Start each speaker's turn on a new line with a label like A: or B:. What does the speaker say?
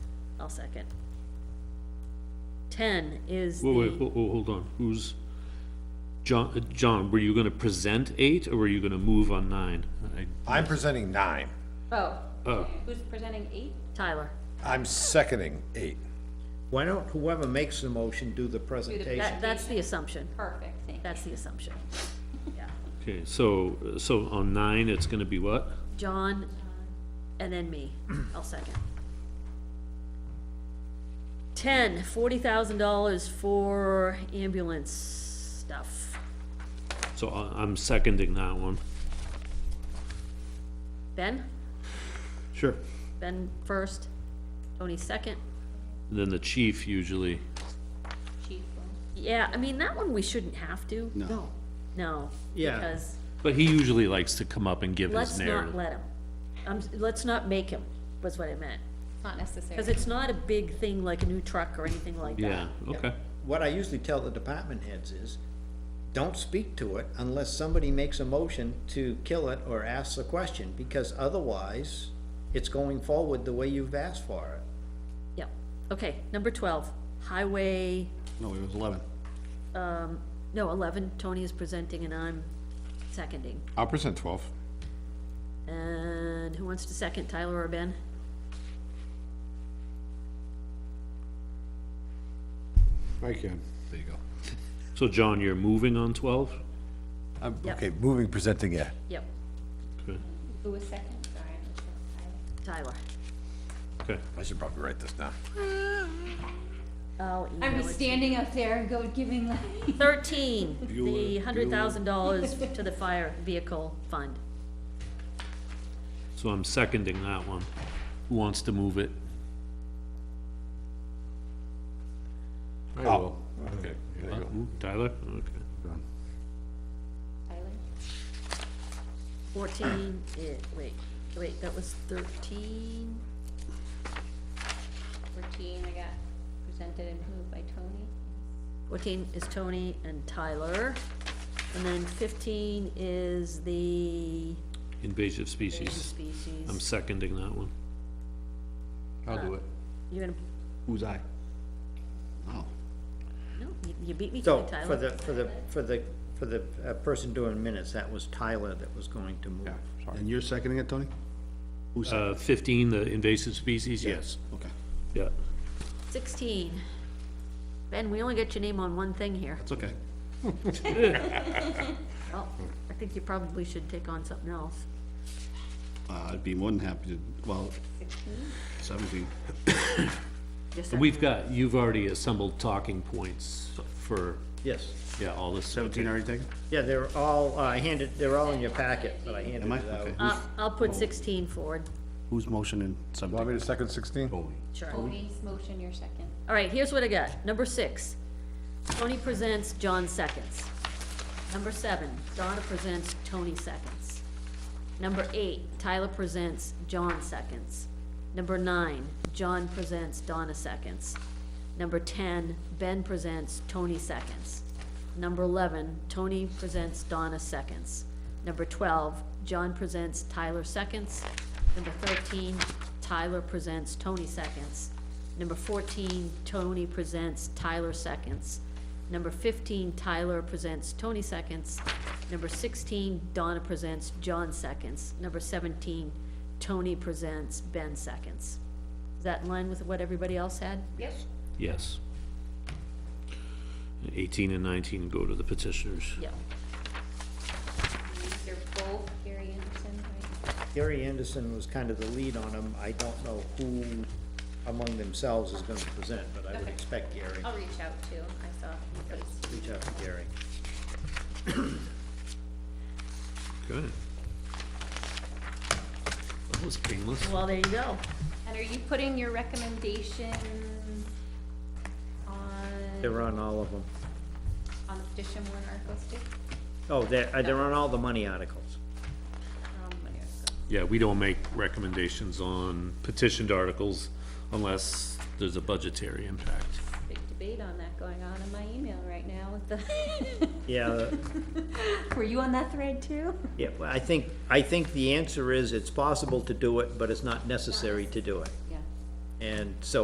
A: I'll second. Ten is
B: Whoa, wait,
A: the,
B: ho- ho- hold on, who's, John, uh, John, were you gonna present eight, or were you gonna move on nine? I-
C: I'm presenting nine.
D: Oh,
B: Oh,
D: who's presenting eight?
A: Tyler,
C: I'm seconding eight.
E: Why don't whoever makes the motion do the presentation?
A: that, that's the assumption,
D: Perfect, thank you.
A: that's the assumption. Yeah,
B: okay, so, so on nine, it's gonna be what?
A: John, and then me, I'll second. Ten, forty thousand dollars for ambulance stuff,
B: So I, I'm seconding that one.
A: Ben,
E: Sure.
A: Ben first, Tony second.
B: And Then the chief usually,
D: Chief,
A: Yeah, I mean, that one we shouldn't have to.
E: No.
A: No,
E: Yeah.
A: because
B: but he usually likes to come up and give his
A: let's not
B: narrative.
A: let him, um, let's not make him, was what I meant.
D: it's not necessary.
A: Cause it's not a big thing like a new truck or anything like that.
B: Yeah, okay,
E: What I usually tell the department heads is, don't speak to it unless somebody makes a motion to kill it or asks a question, because otherwise, it's going forward the way you've asked for it.
A: Yep, okay, number twelve, highway, Um,
F: No, it was eleven.
A: no, eleven, Tony is presenting and I'm seconding.
F: I'll present twelve.
A: And who wants to second, Tyler or Ben?
F: I can. There you go.
B: so John, you're moving on twelve?
C: I'm,
A: Yep.
C: okay, moving, presenting, yeah.
A: Yep,
B: Okay,
D: Who was second? Sorry, I missed that. I-
A: Tyler.
B: okay,
C: I should probably write this down.
A: I'll
D: I'm
A: email
D: just
A: it.
D: standing up there and go giving like.
A: Thirteen, the hundred thousand dollars to the fire vehicle fund.
B: so I'm seconding that one. Who wants to move it?
F: I
C: Oh,
F: will.
B: Ooh, Uh, Tyler, okay.
D: Tyler?
A: Fourteen, eh, wait, wait, that was thirteen?
D: Fourteen, I got presented and moved by Tony.
A: Fourteen is Tony and Tyler. And then fifteen is the
B: Invasive species, I'm
A: species.
B: seconding that one.
F: I'll do it.
A: You're gonna,
F: Who's I? Oh,
A: no, you- you beat me to
E: So,
A: it,
E: for
A: Tyler.
E: the, for the, for the, for the uh, person doing minutes, that was Tyler that was going to move.
F: yeah, sorry. And you're seconding it, Tony? Who's,
B: Uh, fifteen, the invasive species, yes,
F: okay.
B: yeah.
A: Sixteen. Ben, we only get your name on one thing here.
F: It's okay.
A: Well, I think you probably should take on something else.
F: Uh, I'd be more than happy to, well, seventeen.
A: Just
B: And we've got, you've already assembled talking points for,
E: Yes.
B: yeah, all this.
F: Seventeen already taken?
E: Yeah, they're all, uh, I handed, they're all in your packet, but I handed
F: Am I?
E: it out.
F: Okay.
A: I'll, Uh, I'll
F: Oh.
A: put sixteen forward,
F: Who's motioning
C: Want me
F: seventeen?
C: to second sixteen?
F: Tony.
A: sure.
F: Oh.
D: Tony's motion, your second.
A: All right, here's what I got. Number six, Tony presents, John seconds. Number seven, Donna presents, Tony seconds. Number eight, Tyler presents, John seconds. Number nine, John presents, Donna seconds. Number ten, Ben presents, Tony seconds. Number eleven, Tony presents, Donna seconds. Number twelve, John presents, Tyler seconds. Number thirteen, Tyler presents, Tony seconds. Number fourteen, Tony presents, Tyler seconds. Number fifteen, Tyler presents, Tony seconds. Number sixteen, Donna presents, John seconds. Number seventeen, Tony presents, Ben seconds. Is that in line with what everybody else had?
D: Yep.
B: Yes. Eighteen and nineteen go to the petitioners.
A: Yeah.
D: These are both Gary Anderson, right?
E: Gary Anderson was kind of the lead on them. I don't know who among themselves is gonna present, but I would
D: Okay.
E: expect Gary.
D: I'll reach out to, him. I saw he was.
E: Reach out to Gary.
B: Okay. That was painless.
A: Well, there you go.
D: And are you putting your recommendations on,
E: They're on all of them.
D: on the petition warrant articles too?
E: Oh, they're, uh, they're on all the money articles.
D: Um, when you're-
B: Yeah, we don't make recommendations on petitioned articles unless there's a budgetary impact.
D: Big debate on that going on in my email right now with the.
E: Yeah, uh,
D: Were you on that thread too?
E: yeah, well, I think, I think the answer is it's possible to do it, but it's not necessary to do it.
D: Yeah.
E: And so